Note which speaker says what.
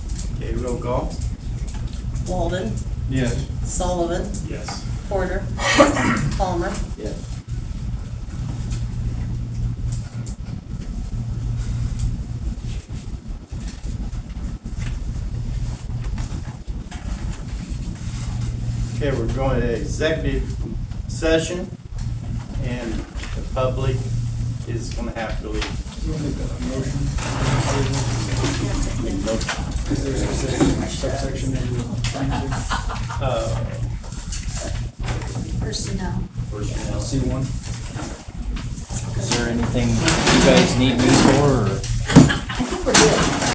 Speaker 1: Okay, roll call?
Speaker 2: Walden,
Speaker 3: Yes.
Speaker 2: Sullivan,
Speaker 1: Yes.
Speaker 2: Porter, Palmer.
Speaker 3: Yes.
Speaker 1: Okay, we're going to executive session, and the public is gonna have to leave.
Speaker 4: Is there a subsection- subsection that you're trying to
Speaker 1: Uh,
Speaker 5: personnel.
Speaker 1: personnel.
Speaker 4: see one?
Speaker 6: Is there anything you guys need me for,
Speaker 5: I
Speaker 6: or?
Speaker 5: think we're good.